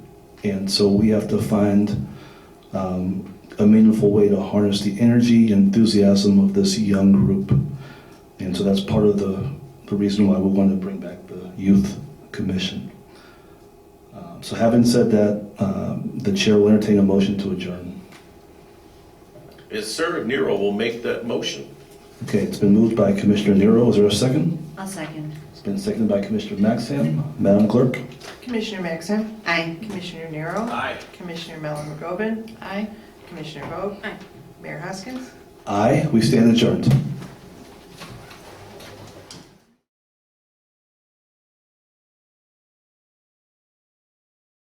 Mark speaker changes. Speaker 1: And so we have to find um, a meaningful way to harness the energy and enthusiasm of this young group. And so that's part of the, the reason why we want to bring back the youth commission. Um, so having said that, um, the chair will entertain a motion to adjourn.
Speaker 2: Is Sir Nero will make that motion.
Speaker 1: Okay, it's been moved by Commissioner Nero. Is there a second?
Speaker 3: I'll second.
Speaker 1: It's been seconded by Commissioner Maxham. Madam Clerk?
Speaker 4: Commissioner Maxim,
Speaker 3: Aye.
Speaker 4: Commissioner Nero.
Speaker 2: Aye.
Speaker 4: Commissioner Mellon McGovern. Aye. Commissioner Vogt.
Speaker 3: Aye.
Speaker 4: Mayor Hoskins.
Speaker 1: Aye, we stand adjourned.